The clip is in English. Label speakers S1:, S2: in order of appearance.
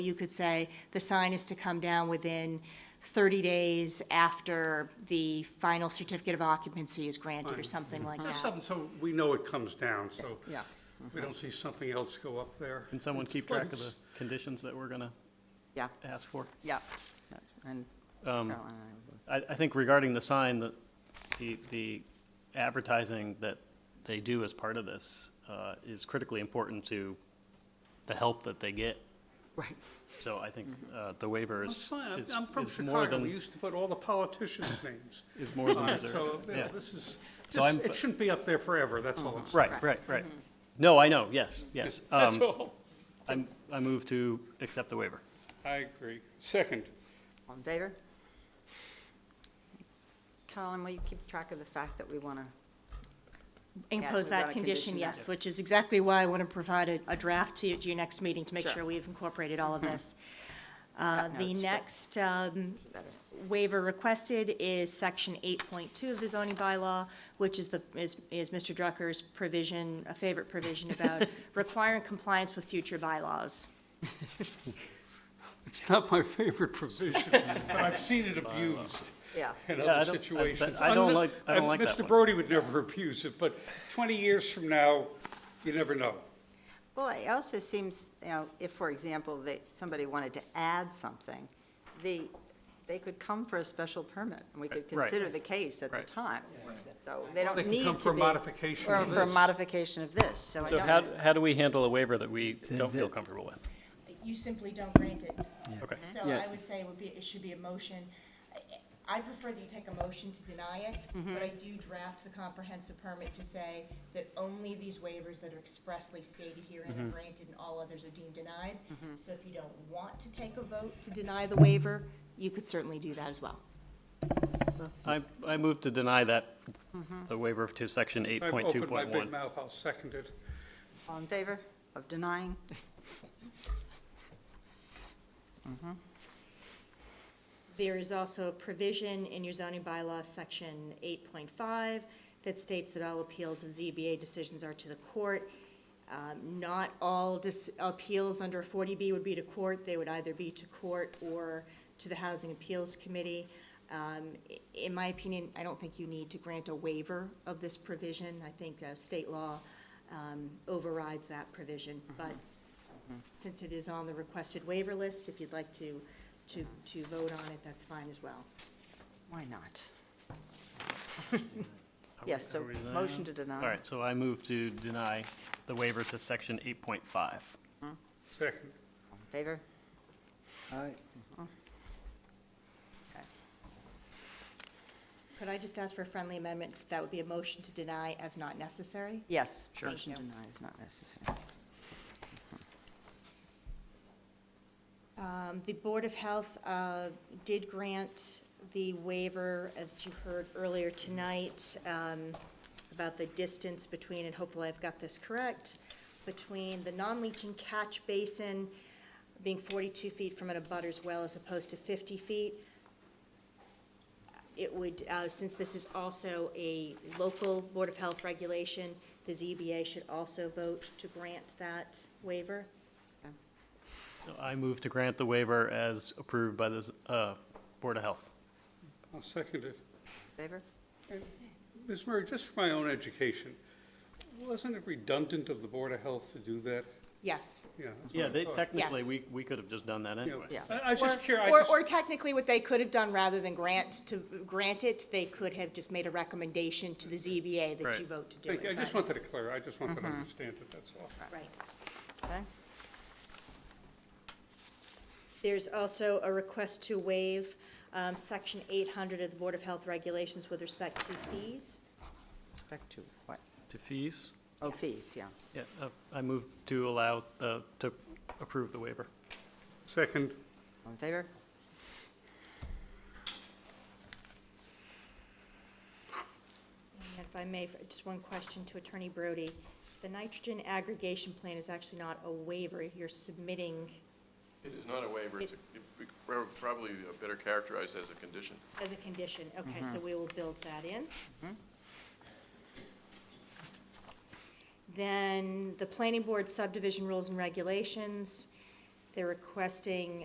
S1: You could say the sign is to come down within 30 days after the final certificate of occupancy is granted or something
S2: Mm-hmm.
S1: like
S3: Just
S1: that.
S3: something so we know it comes down, so
S2: Yeah.
S3: we don't see something else go up there.
S4: Can someone keep track of the conditions that we're going to
S2: Yeah,
S4: ask for?
S2: yeah. That's- And
S4: Um,
S2: Carolyn and I were both-
S4: I, I think regarding the sign, the, the- the advertising that they do as part of this uh, is critically important to the help that they get.
S2: Right,
S4: So I think uh, the waiver
S3: Mm-hmm. That's
S4: is,
S3: fine, I'm-
S4: is
S3: I'm from
S4: is more
S3: Chicago, we
S4: than,
S3: used to put all the politicians' names.
S4: is more
S3: on
S4: than
S3: it, So,
S4: deserved.
S3: you know,
S4: Yeah.
S3: this is,
S4: So I'm-
S3: this- it shouldn't be up there forever, that's all I'm saying.
S4: Right, right, right. No, I know, yes, yes.
S3: Mm-hmm. That's
S4: Um,
S3: all,
S4: I'm, I move to accept the waiver.
S3: I agree. Second,
S2: all in favor? Carolyn, will you keep track of the fact that we want to,
S1: Impose
S2: Yeah, we've got
S1: that
S2: a
S1: condition,
S2: condition
S1: yes,
S2: that-
S1: which is exactly why I want to provide a, a draft to you at your next meeting to make
S2: Sure. Mm-hmm.
S1: sure we've incorporated all of this.
S2: Yeah,
S1: Uh,
S2: no,
S1: The
S2: it's good.
S1: next um, waiver requested is section eight point two of the zoning bylaw, which is the, is, is Mr. Drucker's provision, a favorite provision about requiring compliance with future bylaws.
S3: it's not my favorite provision, but I've seen it abused
S2: yeah,
S3: in
S4: Yeah,
S3: other
S4: I don't- I- but
S3: situations.
S4: I don't
S3: Unli-
S4: like- I don't
S3: and
S4: like that
S3: Mr.
S4: one.
S3: Brody would never abuse it, but 20 years from now, you never know.
S2: Well, it also seems, you know, if, for example, that somebody wanted to add something, they, they could come for a special permit, and we could
S4: Uh, Right.
S2: consider the case at the
S4: Right.
S2: time. So they don't
S3: They
S2: need to
S3: can
S2: be.
S3: come for a modification
S2: or
S3: of
S2: for a
S3: this.
S2: modification of this, so I
S4: So
S2: don't-
S4: how, how do we handle a waiver that we don't feel comfortable with?
S1: You simply don't grant it.
S4: Okay.
S1: So I would say it would be, it should be a motion. I- I prefer that you take a motion to deny it, but I do draft the comprehensive permit to say that only these waivers that are expressly stated here and are granted and all others are deemed denied. So if you don't want to take a vote to deny the waiver, you could certainly do that as well.
S4: I, I move to deny that, the waiver to section
S3: Mm-hmm. I've opened my big
S4: 8.2.1.
S3: mouth, I'll second it.
S2: All in favor of denying?
S1: There is also a provision in your zoning bylaw, section eight point five, that states that all appeals of ZBA decisions are to the court. Um, Not all dis- appeals under forty B would be to court, they would either be to court or to the Housing Appeals Committee. Um, i- In my opinion, I don't think you need to grant a waiver of this provision, I think uh, state law um, overrides that provision, but since it is on the requested waiver list, if you'd like to, to, to vote on it, that's fine as well.
S2: Why not? Yes, so
S4: Are we there?
S2: motion to deny.
S4: All right, so I move to deny the waiver to section 8.5.
S3: Second.
S2: All in Favor?
S1: Could I just ask for a friendly amendment? That would be a motion to deny as not necessary?
S2: Yes.
S4: Sure.
S2: Motion to deny is not necessary.
S1: Um, The Board of Health uh, did grant the waiver, as you heard earlier tonight, um, about the distance between, and hopefully I've got this correct, between the non-leaching catch basin being 42 feet from an abutter's well as opposed to 50 feet. It would, uh, since this is also a local Board of Health regulation, the ZBA should also vote to grant that waiver.
S4: So I move to grant the waiver as approved by the uh, Board of Health.
S3: I'll second it.
S2: Favor?
S3: Ms. Murray, just for my own education, wasn't it redundant of the Board of Health to do that?
S1: Yes.
S3: Yeah. that's what
S4: Yeah,
S3: I
S4: they,
S3: thought.
S4: technically,
S1: Yes.
S4: we, we could have just done that
S3: Yeah.
S4: anyway.
S2: Yeah.
S3: I I was just
S1: Or-
S3: curious, I
S1: or-
S3: just-
S1: Or technically, what they could have done, rather than grant to, grant it, they could have just made a recommendation to the ZBA that
S4: Right.
S1: you vote to do
S3: thank
S1: it.
S3: you, I just
S1: but-
S3: wanted to clarify, I just wanted
S4: Mm-hmm.
S3: to understand it, that's all.
S1: Right.
S2: Okay.
S1: There's also a request to waive um, Section 800 of the Board of Health Regulations with respect to fees.
S2: Respect to what?
S4: To fees,
S2: Oh,
S1: Yes.
S2: fees, yeah.
S4: yeah, uh, I move to allow, uh, to approve the waiver.
S3: Second,
S2: All in favor?
S1: And if I may, for- just one question to Attorney Brody. The nitrogen aggregation plan is actually not a waiver, you're submitting,
S5: It is not a waiver, it's, a- it- we pro- probably better characterized as a condition.
S1: as a condition. Okay, so we will build that in. Then the planning board subdivision rules and regulations, They're requesting